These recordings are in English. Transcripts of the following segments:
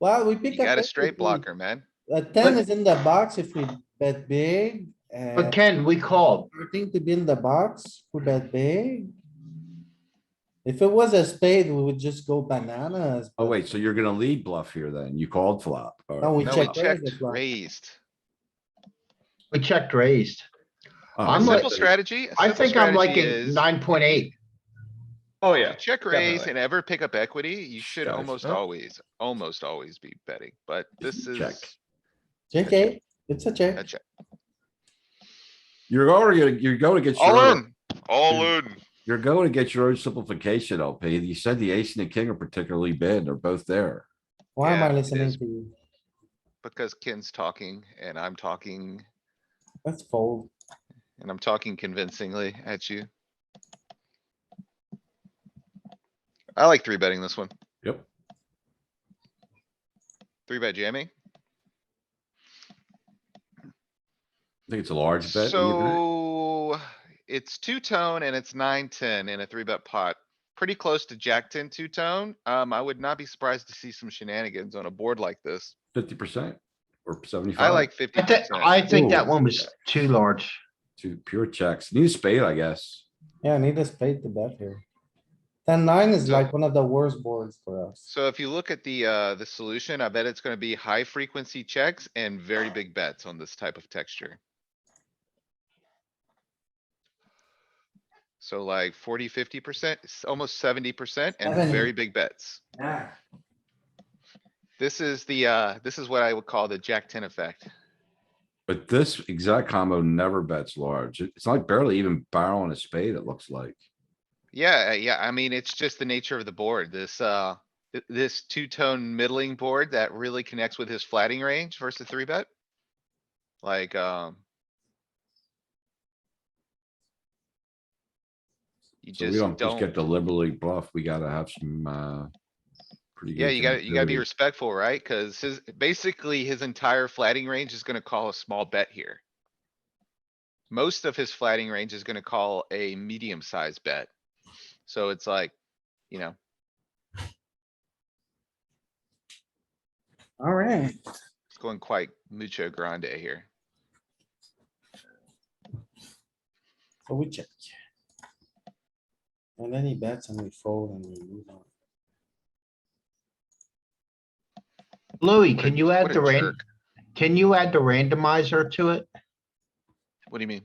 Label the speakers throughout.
Speaker 1: Well, we pick
Speaker 2: You
Speaker 1: up.
Speaker 2: got a
Speaker 1: everything.
Speaker 2: straight blocker, man.
Speaker 1: A ten is in the box if we bet big,
Speaker 3: But
Speaker 1: and
Speaker 3: Ken, we called.
Speaker 1: everything to be in the box, we bet big. If it was a spade, we would just go bananas.
Speaker 4: Oh,
Speaker 1: but
Speaker 4: wait, so you're gonna lead bluff here then? You called flop. or-
Speaker 1: No, we
Speaker 2: No, we
Speaker 1: checked raise
Speaker 2: checked
Speaker 1: as well.
Speaker 2: raised.
Speaker 3: We checked raised.
Speaker 4: Oh,
Speaker 2: A
Speaker 3: I'm like-
Speaker 2: simple strategy. a
Speaker 3: I
Speaker 2: simple
Speaker 3: think I'm like
Speaker 2: strategy
Speaker 3: at
Speaker 2: is
Speaker 3: nine point eight.
Speaker 5: Oh,
Speaker 2: you
Speaker 5: yeah.
Speaker 2: Check raise
Speaker 5: definitely.
Speaker 2: and ever pick up equity. You should
Speaker 4: Guys,
Speaker 2: almost
Speaker 5: huh?
Speaker 2: always, almost always be betting, but this
Speaker 4: Check.
Speaker 2: is
Speaker 1: Check eight, it's a
Speaker 2: a
Speaker 1: check.
Speaker 2: check.
Speaker 4: You're already, gonna- you're going to get your,
Speaker 2: All
Speaker 4: own-
Speaker 2: in, all in.
Speaker 4: you're going to get your own simplification LP. You said the ace and the king are particularly bad. They're both there.
Speaker 1: Why am
Speaker 2: Yeah,
Speaker 1: I
Speaker 2: it
Speaker 1: listening
Speaker 2: is.
Speaker 1: to you?
Speaker 2: Because Ken's talking and I'm talking
Speaker 1: Let's fold.
Speaker 2: and I'm talking convincingly at you. I like three betting this one.
Speaker 4: Yep.
Speaker 2: Three bet jamming.
Speaker 4: I think it's a large bet. and you bet.
Speaker 2: So it's two tone and it's nine, ten in a three bet pot. Pretty close to jack ten two tone. Um, I would not be surprised to see some shenanigans on a board like this.
Speaker 4: Fifty percent or seventy-five.
Speaker 2: I like fifty
Speaker 3: I think,
Speaker 2: percent.
Speaker 3: I think that
Speaker 4: Ooh.
Speaker 3: one was too large.
Speaker 4: Two pure checks. Need a spade, I guess.
Speaker 1: Yeah, I need a spade to bet here. Ten nine is
Speaker 2: So-
Speaker 1: like one of the worst boards for us.
Speaker 2: So if you look at the, uh, the solution, I bet it's gonna be high frequency checks and very big bets on this type of texture. So like 40, 50 percent, almost seventy percent and very
Speaker 1: 70.
Speaker 2: big bets.
Speaker 1: Yeah.
Speaker 2: This is the, uh, this is what I would call the jack ten effect.
Speaker 4: But this exact combo never bets large. It- It's like barely even barrel on a spade, it looks like.
Speaker 2: Yeah, yeah, I mean, it's just the nature of the board, this, uh, th- this two-tone middling board that really connects with his flatting range versus three bet. Like, um. You
Speaker 4: So we
Speaker 2: just
Speaker 4: don't just get
Speaker 2: don't,
Speaker 4: deliberately bluff. We gotta have some, uh. pretty
Speaker 2: yeah,
Speaker 4: good
Speaker 2: you gotta, you gotta be
Speaker 4: connectivity.
Speaker 2: respectful, right? Cuz his, basically his entire flatting range is gonna call a small bet here. Most of his flatting range is gonna call a medium-sized bet. So it's like, you know,
Speaker 1: Alright,
Speaker 2: It's going quite mucho grande here.
Speaker 1: so we check. And then he bets and we fold and we move on.
Speaker 3: Louis,
Speaker 2: What a-
Speaker 3: can you
Speaker 2: what
Speaker 3: add
Speaker 2: a
Speaker 3: the ran,
Speaker 2: jerk.
Speaker 3: can you add the randomizer to it?
Speaker 2: What do you mean?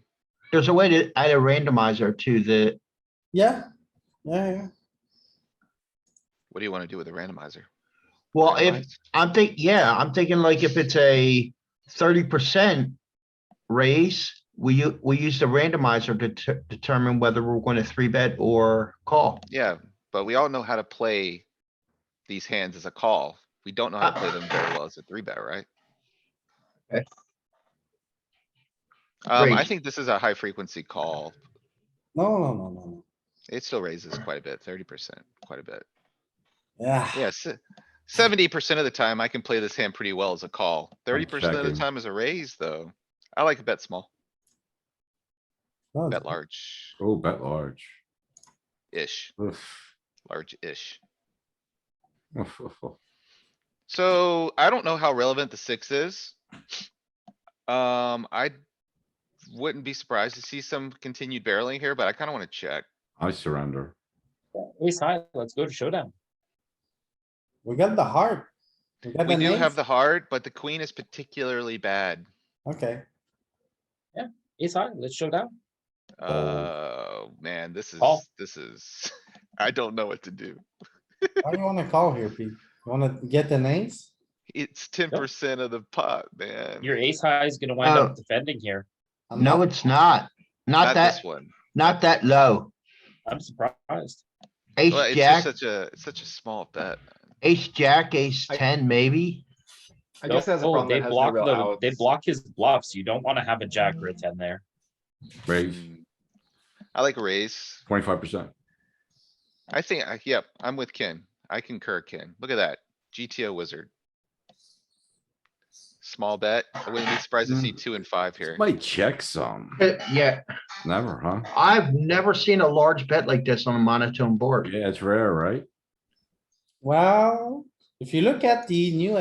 Speaker 3: There's a way to add a randomizer to the,
Speaker 1: Yeah, yeah, yeah.
Speaker 2: What do you wanna do with a randomizer?
Speaker 3: well, if,
Speaker 2: Randomize?
Speaker 3: I'm think, yeah, I'm thinking like if it's a thirty percent raise, we, u- we use the randomizer to ter- determine whether we're going to three bet or call.
Speaker 2: Yeah, but we all know how to play these hands as a call. We don't know how to play them very well as a three bet, right?
Speaker 3: Okay.
Speaker 2: Um, I
Speaker 3: Great.
Speaker 2: think this is a high frequency call.
Speaker 1: No, no, no, no, no.
Speaker 2: It still raises quite a bit, thirty percent, quite a bit.
Speaker 1: Yeah.
Speaker 2: Yes. Seventy percent of the time I can play this hand pretty well as a call. Thirty percent of the
Speaker 4: checking.
Speaker 2: time is a raise, though. I like a bet small,
Speaker 1: no, it's-
Speaker 2: bet large-ish,
Speaker 4: Oh, bet large. Oof.
Speaker 2: large-ish.
Speaker 4: Oof, oof, oof.
Speaker 2: So I don't know how relevant the six is. Um, I wouldn't be surprised to see some continued barreling here, but I kinda wanna check.
Speaker 4: I surrender.
Speaker 5: Ace high, let's go to showdown.
Speaker 1: We got the heart. We got
Speaker 2: We
Speaker 1: an
Speaker 2: do have
Speaker 1: ace.
Speaker 2: the heart, but the queen is particularly bad.
Speaker 1: Okay,
Speaker 5: Ace high, let's show down.
Speaker 2: Oh. Uh, man, this is,
Speaker 5: Call.
Speaker 2: this is, I don't know what to do.
Speaker 1: why do you wanna call here, Pete? You Wanna get an ace?
Speaker 2: It's ten percent of the pot, man.
Speaker 5: Your ace high is gonna wind
Speaker 3: Oh.
Speaker 5: up defending here.
Speaker 1: I'm
Speaker 3: No,
Speaker 1: not-
Speaker 3: it's not. Not
Speaker 2: Not
Speaker 3: that,
Speaker 2: this one.
Speaker 3: not that low.
Speaker 5: I'm surprised.
Speaker 3: Ace,
Speaker 2: Well, it's just
Speaker 3: jack,
Speaker 2: such a, it's such a small bet.
Speaker 3: ace, jack, ace
Speaker 5: I-
Speaker 3: ten, maybe.
Speaker 5: I
Speaker 6: guess that's a problem that
Speaker 5: Oh, They
Speaker 6: has no
Speaker 5: block
Speaker 6: real
Speaker 5: the, they
Speaker 6: outs.
Speaker 5: block his bluffs. You don't wanna have a jack or a ten there.
Speaker 4: Raise
Speaker 2: Mm. I like raise.
Speaker 4: twenty-five percent.
Speaker 2: I think, I- yep, I'm with Ken. I concur, Ken. Look at that. GTO wizard. Small bet. I wouldn't be surprised to see two and five here.
Speaker 4: Might check some.
Speaker 3: Yeah,
Speaker 4: Never, huh?
Speaker 3: I've never seen a large bet like this on a monotone board.
Speaker 4: Yeah, it's rare, right?
Speaker 1: Well, if you look at the new